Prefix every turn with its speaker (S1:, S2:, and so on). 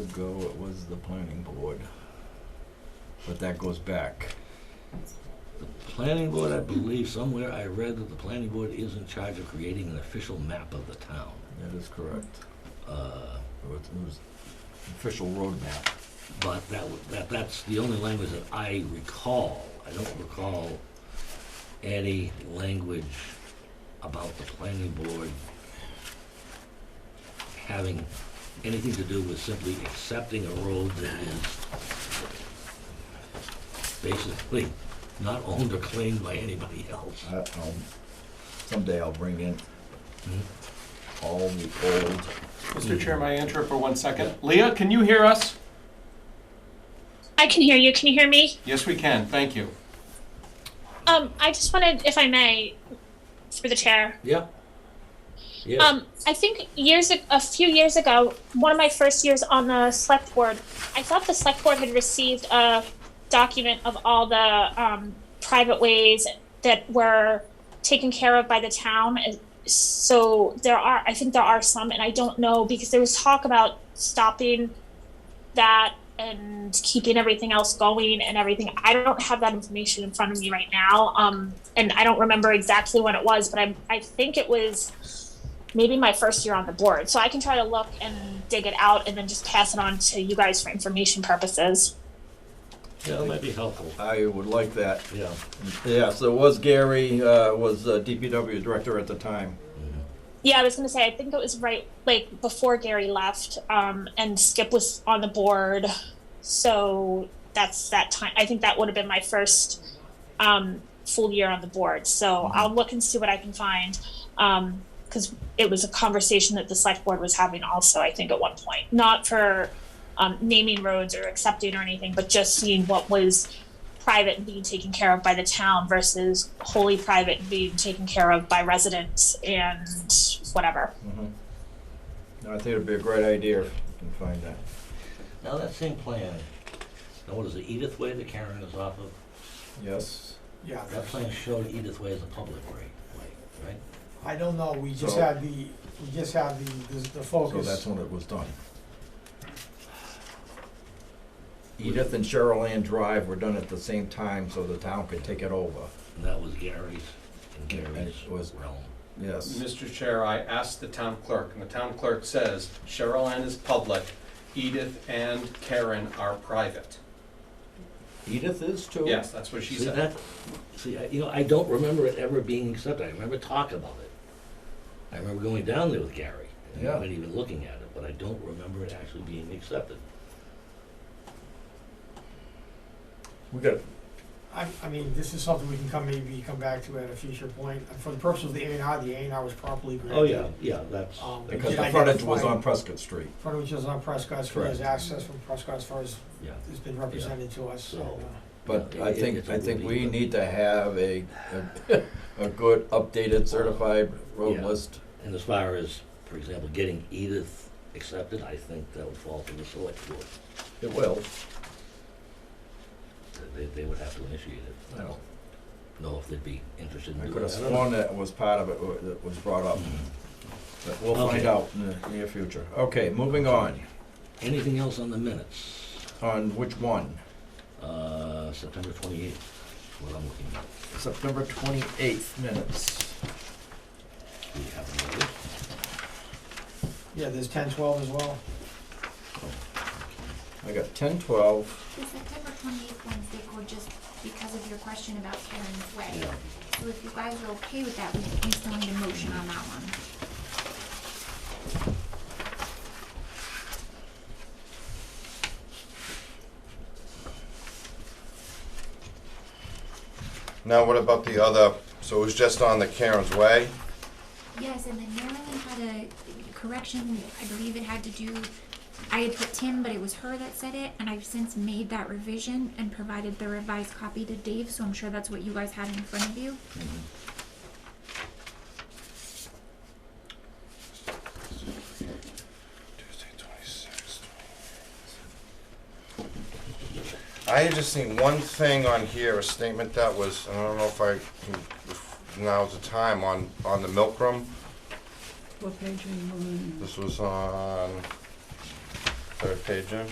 S1: ago, it was the planning board. But that goes back.
S2: The planning board, I believe, somewhere I read that the planning board is in charge of creating an official map of the town.
S1: That is correct.
S2: Uh,
S1: It was, it was official roadmap.
S2: But that, w- that, that's the only language that I recall. I don't recall any language about the planning board having anything to do with simply accepting a road that is basically not owned or claimed by anybody else.
S1: I, um, someday I'll bring in
S2: Mhm.
S1: all the old.
S3: Mr. Chair, may I enter for one second? Leah, can you hear us?
S4: I can hear you. Can you hear me?
S3: Yes, we can, thank you.
S4: Um, I just wanted, if I may, for the chair.
S2: Yeah? Yeah.
S4: Um, I think years ag- a few years ago, one of my first years on the select board, I thought the select board had received a document of all the um, private ways that were taken care of by the town. And So there are, I think there are some, and I don't know because there was talk about stopping that and keeping everything else going and everything. I don't have that information in front of me right now, um, and I don't remember exactly when it was, but I I think it was maybe my first year on the board. So I can try to look and dig it out and then just pass it on to you guys for information purposes.
S2: Yeah, that might be helpful.
S1: I would like that.
S2: Yeah.
S1: Yes, it was Gary, uh, was uh, DPW director at the time.
S4: Yeah, I was gonna say I think it was right like before Gary left, um, and Skip was on the board. So that's that time. I think that would have been my first um, full year on the board. So I'll look and see what I can find. Um, because it was a conversation that the select board was having also, I think, at one point. Not for um, naming roads or accepting or anything, but just seeing what was private and being taken care of by the town versus wholly private and being taken care of by residents and whatever.
S1: I think it'd be a great idea if we can find that.
S2: Now, that same plan, now what is it, Edith Way that Karen is off of?
S1: Yes.
S5: Yeah,
S2: That plan showed Edith Way as a public right, way, right?
S5: I don't know, we just
S1: So-
S5: had the, we just had the, the the
S1: So that's
S5: focus.
S1: when it was done. Edith and Cheryl Ann Drive were done at the same time so the town could take it over.
S2: And that was Gary's, and
S1: And
S2: Gary's
S1: it was-
S2: was realm.
S1: Yes.
S3: Mr. Chair, I asked the town clerk, and the town clerk says Cheryl Ann is public, Edith and Karen are private.
S1: Edith is too.
S3: Yes, that's what she
S2: See,
S3: said.
S2: that, see, I- you know, I don't remember it ever being accepted, I remember talk about it. I remember going down there with Gary, and
S1: Yeah.
S2: not even looking at it, but I don't remember it actually being accepted.
S1: We got,
S5: I, I mean, this is something we can come, maybe come back to at a future point. And For the purpose of the A and R, the A and R was properly granted.
S2: Oh, yeah, yeah, that's,
S5: Um,
S2: that's-
S1: because the frontage was on Prescott Street.
S5: Front of which is on Prescott, as far as
S1: Correct.
S5: access from Prescott, as far as
S2: yeah,
S5: has been represented to us, so.
S2: So-
S5: uh,
S1: But
S2: Yeah,
S1: I
S2: it-
S1: think,
S2: it's
S1: I think we
S2: unbelievable.
S1: need to have a, a- a good updated certified road
S2: Yeah.
S1: list.
S2: and as far as, for example, getting Edith accepted, I think that would fall to the select board,
S1: It will.
S2: They- they, they would have to initiate it. I
S1: Yeah.
S2: don't know if they'd be interested in
S1: I
S2: doing
S1: could have
S2: that. I don't know.
S1: sworn that was part of it wa- that was brought up. But we'll find
S2: Mm-hmm. Okay.
S1: out in the near future. Okay, moving on.
S2: Anything else on the minutes?
S1: On which one?
S2: Uh, September twenty-eighth, what I'm looking at.
S1: September twenty-eighth minutes.
S2: Do you have a notice?
S5: Yeah, there's ten twelve as well.
S1: I got ten twelve.
S6: The September twenty-eighth one's they were just because of your question about Karen's way.
S2: Yeah.
S6: So if you guys are okay with that, we we still need a motion on that one.
S7: Now, what about the other, so it was just on the Karen's Way?
S6: Yes, and then Marilyn had a correction, I believe it had to do, I had put Tim, but it was her that said it, and I've since made that revision and provided the revised copy to Dave, so I'm sure that's what you guys had in front of you.
S7: Tuesday, twenty-sixth. I had just seen one thing on here, a statement that was, and I don't know if I can, if now's the time, on, on the milk room.
S8: What page are you on?
S7: This was on third page in.